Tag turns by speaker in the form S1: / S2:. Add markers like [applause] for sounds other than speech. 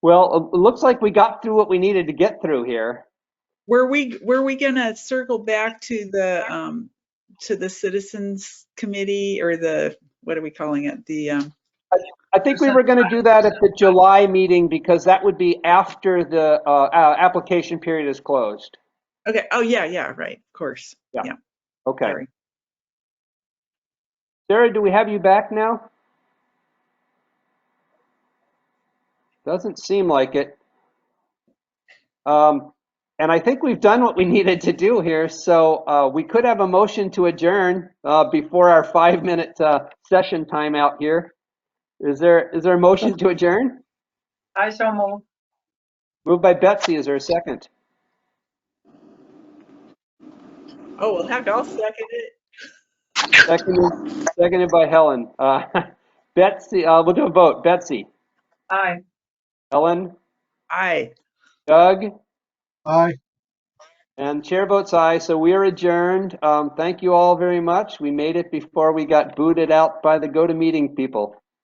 S1: Well, it looks like we got through what we needed to get through here.
S2: Were we, were we gonna circle back to the, um, to the citizens committee or the, what are we calling it? The, um,
S1: I think we were going to do that at the July meeting because that would be after the uh, uh, application period is closed.
S2: okay, oh, yeah, yeah, right, of course.
S1: Yeah. Okay.
S2: Sorry.
S1: Sarah, do we have you back now? Doesn't seem like it. Um, And I think we've done what we [laughs] needed to do here, so uh, we could have a motion to adjourn uh, before our five-minute uh, session timeout here. Is there, is there a motion to adjourn?
S3: I so move.
S1: Moved by Betsy, is there a second?
S2: Oh, well, heck, I'll second it.
S1: Seconded seconded by Helen. Uh, [laughs] Betsy, uh, we'll do a vote. Betsy,
S3: Aye.
S1: Helen,
S2: Aye.
S1: Doug?
S4: Aye.
S1: And chair votes aye, so we are adjourned. Um, thank you all very much. We made it before we got booted out by the go-to-meeting people.